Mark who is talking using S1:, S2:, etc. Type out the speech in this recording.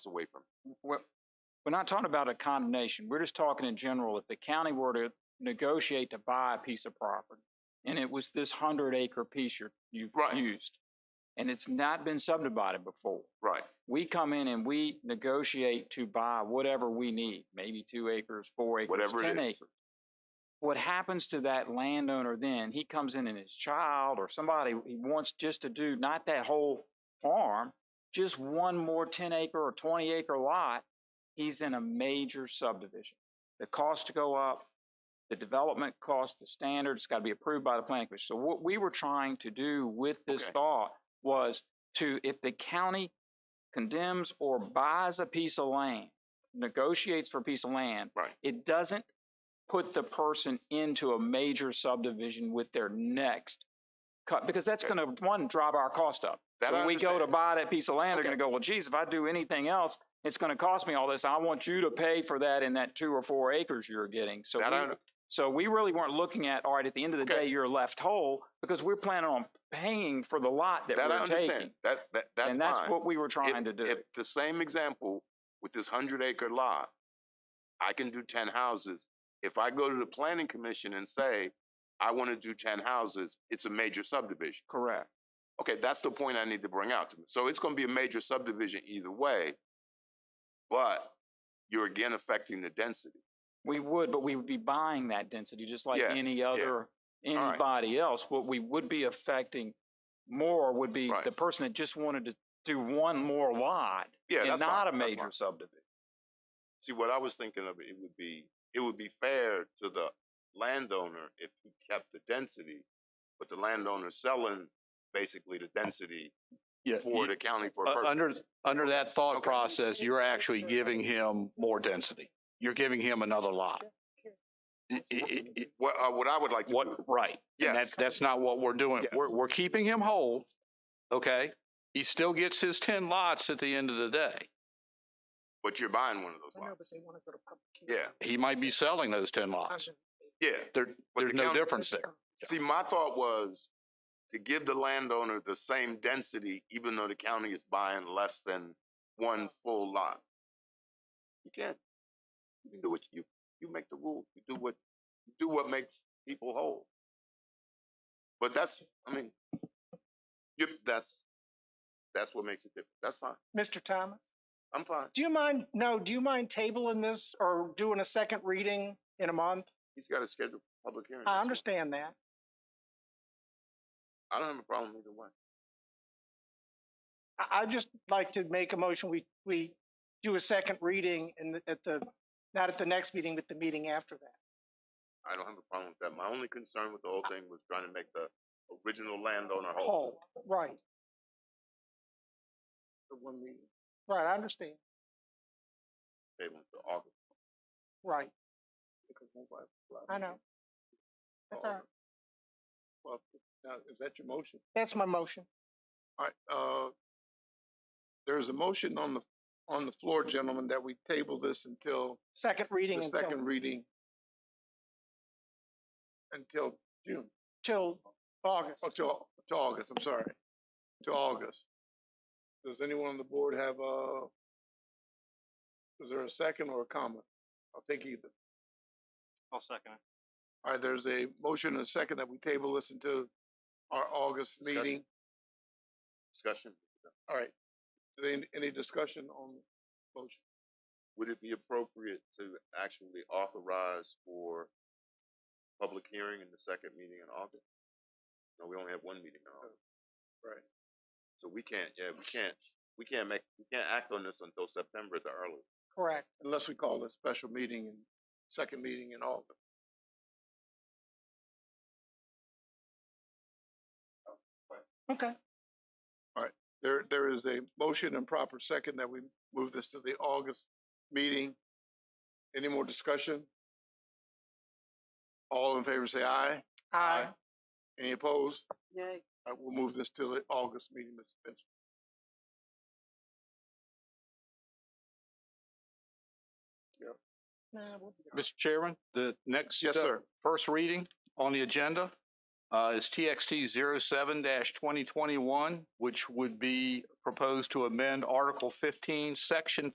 S1: away from.
S2: We're, we're not talking about a condemnation. We're just talking in general. If the county were to negotiate to buy a piece of property, and it was this hundred acre piece you're, you've
S1: Right.
S2: used, and it's not been subdivided before,
S1: Right.
S2: we come in and we negotiate to buy whatever we need, maybe two acres, four acres,
S1: Whatever
S2: ten
S1: it is.
S2: acres. What happens to that landowner then? He comes in and his child or somebody he wants just to do not that whole farm, just one more ten acre or twenty acre lot. He's in a major subdivision. The costs go up, the development cost, the standards got to be approved by the planning commission. So what we were trying to do with this
S1: Okay.
S2: thought was to, if the county condemns or buys a piece of land, negotiates for a piece of land,
S1: Right.
S2: it doesn't put the person into a major subdivision with their next cut, because that's
S1: Okay.
S2: gonna, one, drive our cost up.
S1: That
S2: So
S1: I
S2: when we go to
S1: understand.
S2: buy that piece of land, they're gonna
S1: Okay.
S2: go, well, geez, if I do anything else, it's gonna cost me all this. I want you to pay for that in that two or four acres you're getting. So
S1: That I
S2: we-
S1: under-
S2: so we really weren't looking at, all right, at the end of the
S1: Okay.
S2: day, you're left whole, because we're planning on paying for the lot that
S1: That I
S2: we're
S1: understand.
S2: taking.
S1: That, that, that's fine.
S2: And that's what we were
S1: If-
S2: trying to do.
S1: If the same example with this hundred acre lot, I can do ten houses. If I go to the planning commission and say, I want to do ten houses, it's a major subdivision.
S2: Correct.
S1: Okay, that's the point I need to bring out to me. So it's going to be a major subdivision either way, but you're again affecting the density.
S2: We would, but we would be buying that density, just like
S1: Yeah,
S2: any other,
S1: right.
S2: anybody else. What we would be affecting more would be
S1: Right.
S2: the person that just wanted to do one more lot
S1: Yeah,
S2: and
S1: that's fine,
S2: not a
S1: that's
S2: major
S1: fine.
S2: subdivision.
S1: See, what I was thinking of, it would be, it would be fair to the landowner if he kept the density, but the landowner selling basically the density
S3: Yeah,
S1: for
S3: you-
S1: the county for
S3: Uh, u-
S1: a purpose.
S3: under, under that thought
S1: Okay.
S3: process, you're actually giving him more density. You're giving him another lot. I- i- i- i-
S1: What, uh, what I would like to.
S3: What, right. And
S1: Yes.
S3: that, that's not what we're doing.
S1: Yeah.
S3: We're, we're keeping him whole, okay? He still gets his ten lots at the end of the day.
S1: But you're buying one of those lots.
S4: want to go to public.
S1: Yeah,
S3: He might be selling those ten lots.
S1: yeah.
S3: There,
S1: But
S3: there's
S1: the
S3: no
S1: county-
S3: difference there.
S1: See, my thought was to give the landowner the same density, even though the county is buying less than one full lot. You can't, you can do what you, you make the rule, you do what, you do what makes people whole. But that's, I mean, you, that's, that's what makes it different. That's fine.
S4: Mr. Thomas,
S1: I'm fine.
S4: do you mind, no, do you mind tabling this or doing a second reading in a month?
S1: He's got a scheduled public hearing.
S4: I
S1: next
S4: understand that.
S1: month. I don't have a problem either way.
S4: I, I'd just like to make a motion, we, we do a second reading in, the- at the, not at the next meeting, but the meeting after that.
S1: I don't have a problem with that. My only concern with the whole thing was trying to make the original landowner whole.
S4: Whole, right,
S1: The one meeting.
S4: right, I understand,
S1: They went to August.
S4: right,
S1: because nobody-
S4: I know. That's all right.
S1: Oh, Well, now, is that your motion?
S4: That's my motion.
S1: All right, uh, there's a motion on the, on the floor, gentlemen, that we table this until
S4: Second reading
S1: the second
S4: until,
S1: reading. Until June,
S4: till August.
S1: oh, till, till August, I'm sorry, to August. Does anyone on the board have a, is there a second or a comment? I'll take either.
S5: I'll second it.
S1: All right, there's a motion and a second that we table this until our August meeting. Discussion. All right. Is there Any, any discussion on the motion? Would it be appropriate to actually authorize for public hearing in the second meeting in August? No, we only have one meeting in August. Oh, Right. So we can't, yeah, we can't, we can't make, we can't act on this until September at the earliest.
S4: Correct,
S1: Unless we call a special meeting and second meeting in August.
S4: okay,
S1: There, there is a motion and proper second that we move this to the August meeting. Any more discussion? All in favor, say aye.
S4: aye,
S1: Any opposed? All right, we'll move this to the August meeting, Mr. Spencer.
S3: Mr. Chairman, the next.
S1: Yes,
S3: uh,
S1: sir.
S3: First reading on the agenda uh, is TXT 07-2021, which would be proposed to amend Article 15, Section